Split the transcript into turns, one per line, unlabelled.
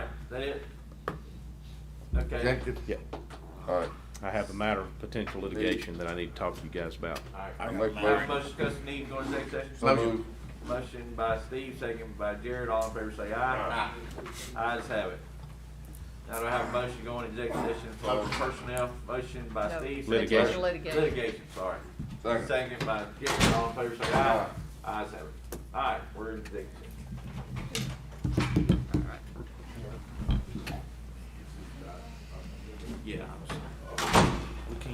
that it? Okay.
Executive?
Yep.
All right.
I have a matter of potential litigation that I need to talk to you guys about.
All
I
right.
make a
Have a
motion.
motion discussing need to go into executive
So
session.
moved.
Motion by Steve, second by Jared, all in favor say aye. Ayes have it. Now do I have a motion to go into executive session for personnel? Motion by
No.
Steve. second by-
Litigation.
Litigation.
Litigation, sorry.
Second.
Second by Jared, all in favor say aye. Ayes have it. All right, we're in executive. session.